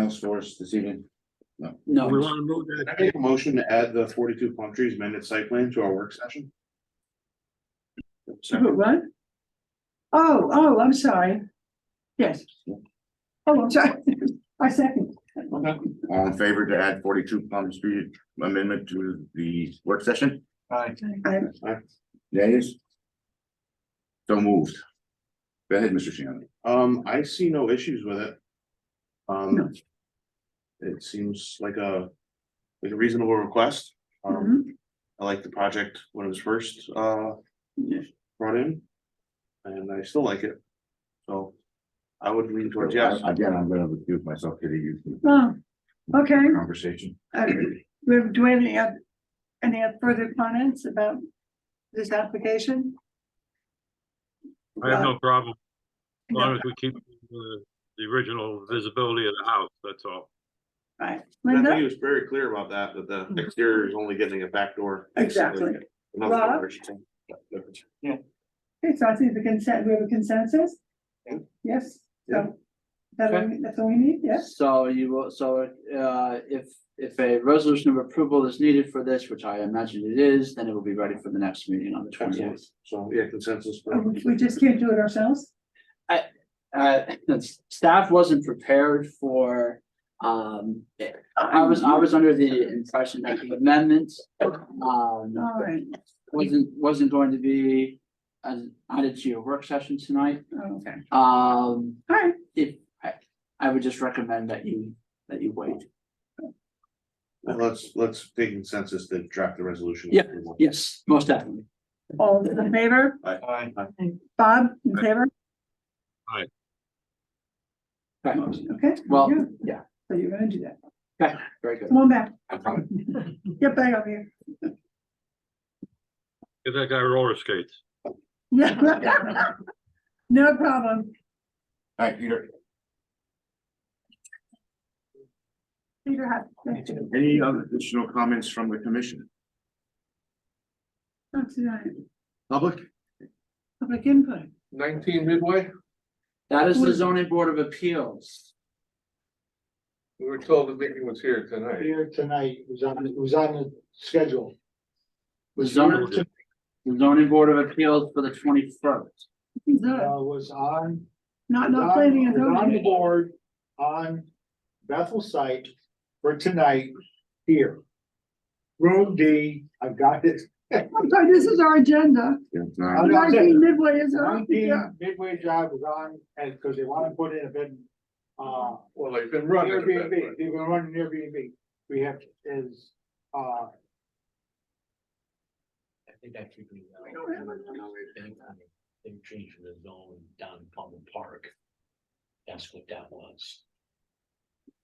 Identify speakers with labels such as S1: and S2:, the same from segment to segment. S1: else for us this evening?
S2: No,
S3: We want to move that,
S1: Can I make a motion to add the forty-two palm trees amended site plan to our work session?
S2: But what? Oh, oh, I'm sorry. Yes. Oh, I'm sorry. I second.
S4: All in favor to add forty-two Plum Street amendment to the work session?
S2: I-
S4: Yes. So moved. Go ahead, Mr. Shannon.
S1: Um, I see no issues with it.
S2: No.
S1: Um. It seems like a, like a reasonable request. Um,
S2: mhm,
S1: I like the project when it was first, uh,
S2: yes.
S1: brought in. And I still like it. So I would lean towards yes.
S4: Again, I'm gonna recuse myself to the
S2: Oh, okay.
S4: conversation.
S2: Uh, Do we have any, oth- any further comments about this application?
S3: I have no problem, as long
S2: No,
S3: as we keep the, the original visibility of the house, that's all.
S2: Right,
S1: And I think he
S2: Linda? Mm-hmm.
S1: was very clear about that, that the exterior is only getting a back door.
S2: Exactly.
S1: Another
S2: Rob?
S1: door, I should say. Yeah.
S2: Okay, so I think the consent, we have a consensus?
S1: Yeah.
S2: Yes,
S1: Yeah.
S2: so. That, all we- that's all we need, yes?
S5: So you will, so uh if if a resolution of approval is needed for this, which I imagine it is, then it will be ready for the next meeting on the
S1: Absolutely.
S5: twentieth.
S1: So, yeah, consensus.
S2: Uh, We we just can't do it ourselves?
S5: Uh, that's- staff wasn't prepared for, um, I was, I was under the impression that the amendment. Um,
S2: All right,
S5: wasn't, wasn't going to be as added to your work session tonight.
S2: Oh, okay,
S5: Um,
S2: all right,
S5: if, I, I would just recommend that you, that you wait.
S1: Well, Let's, let's take consensus to draft the resolution.
S5: Yeah. Yes, most definitely.
S2: all in favor?
S1: Aye.
S2: Bob, in favor?
S3: Aye.
S5: Right.
S2: Okay.
S5: Well,
S2: you.
S5: yeah.
S2: So you're gonna do that.
S5: Okay, very good.
S2: Come on back,
S5: I'm coming.
S2: get back over here.
S3: Give that guy roller skates.
S2: No problem.
S4: All right, Peter,
S2: Peter had.
S4: any other additional comments from the commission?
S2: Not tonight.
S4: Public?
S2: Public input.
S1: Nineteen midway,
S5: That is the
S2: Who's-
S5: zoning board of appeals.
S1: we were told the meeting was here tonight.
S6: here tonight, it was on, it was on the schedule.
S5: The zoning, the zoning board of appeals for the twenty first.
S2: Good.
S6: Uh, was on.
S2: Not, not planning and
S6: was On the
S2: zoning.
S6: board, on Bethel site for tonight, here. Room D, I've got this,
S2: I'm sorry, this is our agenda.
S4: It's not,
S6: I was gonna say-
S2: Nineteen midway is our, yeah.
S6: nineteen midway job was on, and, because they wanna put in a bed, uh,
S1: Well, they've been
S6: Airbnb, they were running Airbnb, we have, is, uh,
S7: I think that should be. uh,
S2: don't have it.
S7: thing, I mean, They changed the zone down in Palmer Park. That's what that was.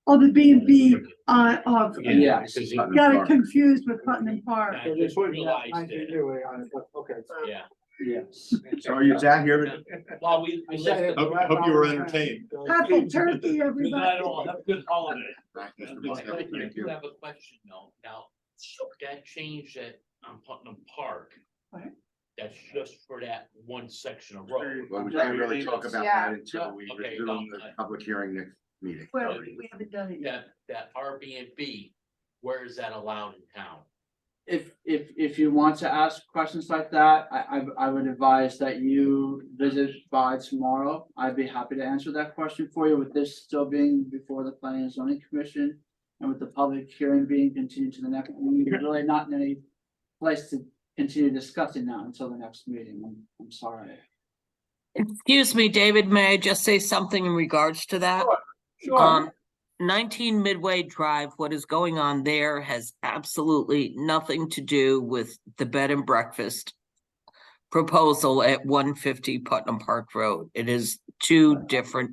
S2: Oh, the B and B on, of, uh,
S7: Yeah,
S5: Yeah.
S7: because it-
S2: got it confused with Putnam Park.
S7: I
S6: so they
S7: just
S6: put that
S7: realized
S6: nineteen
S7: that,
S6: midway on it, but, okay.
S7: yeah.
S5: Yes.
S4: so are you down here?
S7: Well, we, we left.
S6: Hope, hope you were entertained.
S2: Happy turkey,
S7: Good night
S2: everybody.
S7: all, have a good holiday.
S4: Mr.
S7: But
S4: Muscat,
S7: I
S4: thank
S7: do
S4: you.
S7: have a question though, now, that change that on Putnam Park.
S2: What?
S7: That's just for that one section of road.
S4: Well, we can't really talk about that until we
S7: Yeah. Okay,
S4: resume the
S7: no, I-
S4: public hearing next meeting.
S2: Well, we haven't done it yet.
S7: That, that Airbnb, where is that allowed in town?
S5: If, if, if you want to ask questions like that, I, I, I would advise that you visit by tomorrow. I'd be happy to answer that question for you with this still being before the planning and zoning commission. And with the public hearing being continued to the next, we're really not in any place to continue discussing that until the next meeting. I'm, I'm sorry.
S8: Excuse me, David, may I just say something in regards to that? Um, nineteen Midway Drive, what is going on there has absolutely nothing to do with the bed and breakfast proposal at one fifty Putnam Park Road. It is two different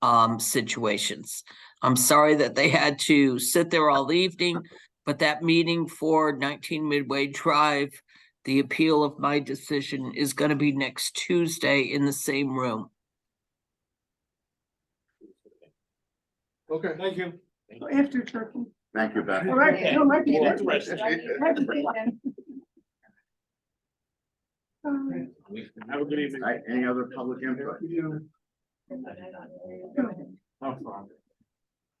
S8: um situations. I'm sorry that they had to sit there all evening, but that meeting for nineteen Midway Drive, the appeal of my decision is gonna be next Tuesday in the same room.
S1: Okay.
S6: Thank you.
S2: After turkey.
S4: Thank you, Beth.
S2: All right, no, let's-
S7: Yeah.
S2: let's- let's- let's do it then. Um,
S4: Have a good evening. Any other public input?
S2: go ahead.
S4: No problem.